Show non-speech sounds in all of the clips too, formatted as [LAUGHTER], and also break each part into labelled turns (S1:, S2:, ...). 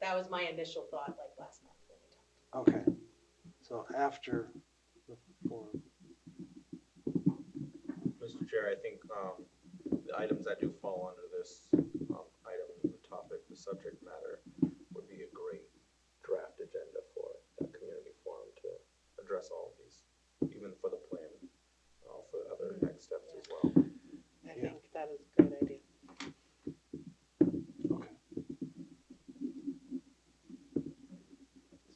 S1: that was my initial thought like last month. when we talked.
S2: Okay, so after the forum,
S3: Mr. Chair, I think um, the items that do fall under this um, item, the topic, the subject matter, would be a great draft agenda for that community forum to address all of these, even for the plan, uh, for the other next steps as well.
S4: I
S2: Yeah.
S4: think that is a good idea.
S2: okay,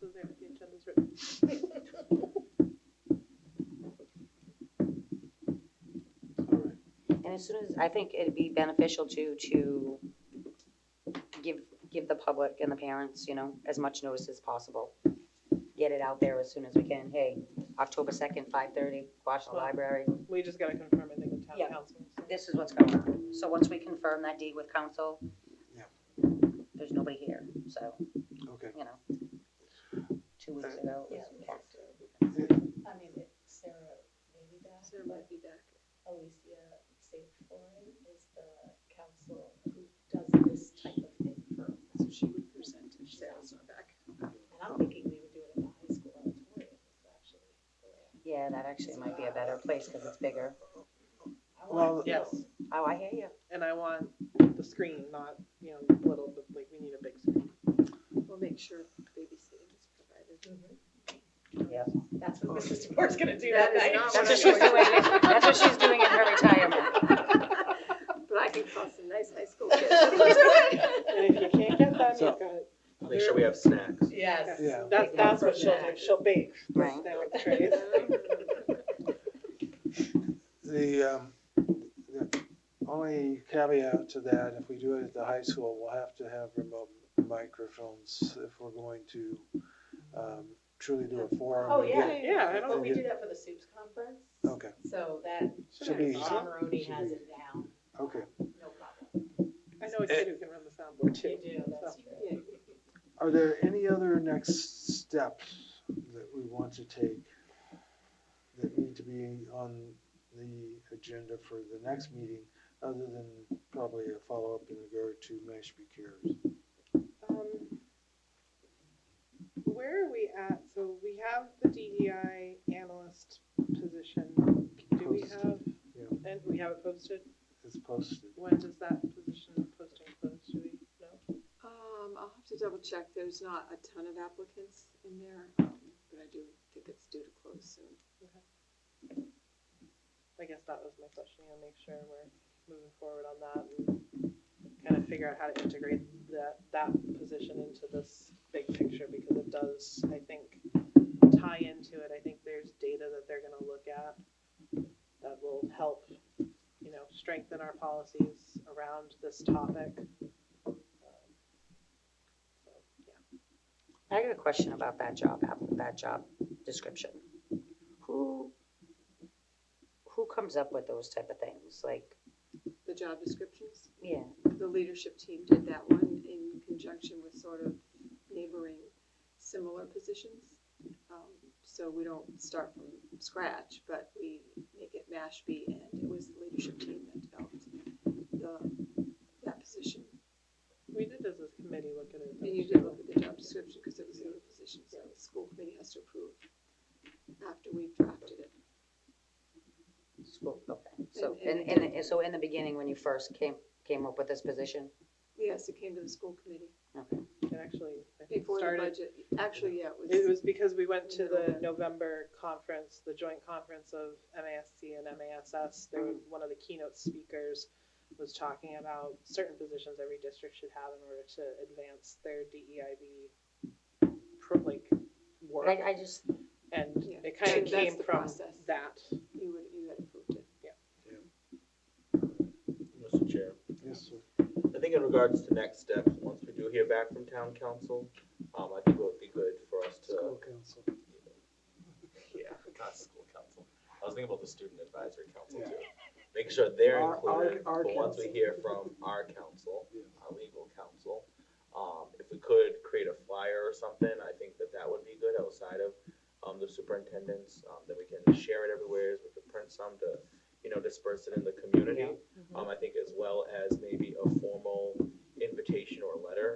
S4: So there, the agenda's written.
S2: all right.
S5: And as soon as, I think it'd be beneficial to, to give, give the public and the parents, you know, as much notice as possible. Get it out there as soon as we can. Hey, October second, five thirty, Quashnet
S4: Well-
S5: Library.
S4: We just gotta confirm, I think, with town
S5: Yeah.
S4: council. so-
S5: This is what's going on. So once we confirm that date with council,
S2: Yeah.
S5: there's nobody here, so,
S2: Okay,
S5: you know. Two weeks ago, it was packed.
S1: I mean, it- Sarah maybe back,
S6: Sarah might be back.
S1: Alicia Safe Foreign is the council who does this type of thing for,
S6: So she would present if Sarah's not back.
S1: and I'm thinking we would do it in the high school auditorium, is actually. the way
S5: Yeah, that actually might be a better place because it's bigger.
S1: I- I
S2: Well,
S1: want to go.
S4: Yes,
S5: Oh, I hear you.
S4: and I want the screen, not, you know, little, but like, we need a big screen.
S6: We'll make sure babysitting is provided.
S1: Mhm.
S5: Yes.
S1: That's what Mrs. DeBoer's gonna do that
S6: That is
S1: night. [LAUGHS]
S6: not
S5: That's what she's
S6: [LAUGHS]
S5: doing, that's what she's doing in her retirement.
S6: But I can call some nice high school kids. [LAUGHS] That's
S4: And if you can't get that,
S2: So-
S4: you've got it.
S3: Make sure we have snacks.
S1: Yes.
S2: Yeah.
S4: That's, that's what she'll do, she'll bake. the
S5: Right.
S4: snack trays.
S2: The, um, the only caveat to that, if we do it at the high school, we'll have to have remote microphones if we're going to, um, truly do a forum.
S1: Oh,
S2: and
S1: yeah.
S2: get-
S4: Yeah, I
S1: Well,
S4: don't,
S1: we do that for the soups conference.
S2: Okay,
S1: So that,
S2: should be, easy.
S1: Tom Maroney has it down,
S2: okay.
S1: no problem.
S4: I know a kid who can run the soundboard too.
S1: You do, that's
S4: so.
S1: true.
S2: Are there any other next steps that we want to take that need to be on the agenda for the next meeting, other than probably a follow-up in regard to Mashpee Cares?
S4: Um, Where are we at? So we have the DEI analyst position. Do we
S2: Posted.
S4: have,
S2: Yeah.
S4: and we have it posted?
S2: It's posted.
S4: When does that position posting close? Do we know?
S6: Um, I'll have to double check. There's not a ton of applicants in there, um, but I do think it's due to close soon.
S4: I guess that was my question, you know, make sure we're moving forward on that and kind of figure out how to integrate that, that position into this big picture because it does, I think, tie into it. I think there's data that they're gonna look at that will help, you know, strengthen our policies around this topic. Um, So, yeah.
S5: I got a question about that job, app- that job description. Who, who comes up with those type of things? Like,
S6: The job descriptions,
S5: yeah,
S6: the leadership team did that one in conjunction with sort of neighboring similar positions. Um, So we don't start from scratch, but we make it Mashpee, and it was the leadership team that developed the, that position.
S4: We did as a committee look at it.
S6: And you did look at the job description because it was a new position, so the school committee has to approve after we've drafted it.
S5: school, okay. So,
S6: And-
S5: and,
S6: and-
S5: and, and so in the beginning, when you first came, came up with this position?
S6: Yes, it came to the school committee
S5: Okay,
S4: It actually, I think,
S6: before the
S4: started
S6: budget. Actually, yeah,
S4: It
S6: it was,
S4: was because we went to the November conference, the joint conference of MASC and MASS. There was, one of the keynote speakers was talking about certain positions every district should have in order to advance their DEIB pro, like,
S5: but
S4: work.
S5: I, I just,
S4: And
S6: Yeah.
S4: it kind
S6: So
S4: of
S6: that's
S4: came
S6: the
S4: from
S6: process.
S4: that.
S6: you would, you had approved it.
S3: Mr. Chair.
S2: Yes, sir.
S3: I think in regards to next steps, once we do hear back from town council, um, I think it would be good for us to.
S2: School council.
S3: [LAUGHS] Yeah, not school council. I was thinking about the student advisory council
S2: Yeah.
S3: too. Make sure they're
S2: Our- our-
S3: included,
S2: our
S3: but once we
S2: council.
S3: hear from our council,
S2: Yeah.
S3: our legal counsel, um, if we could create a flyer or something, I think that that would be good outside of, um, the superintendent's, um, that we can share it everywhere, we could print some to, you know, disperse it in the community.
S5: Yeah.
S3: Um, I think as well as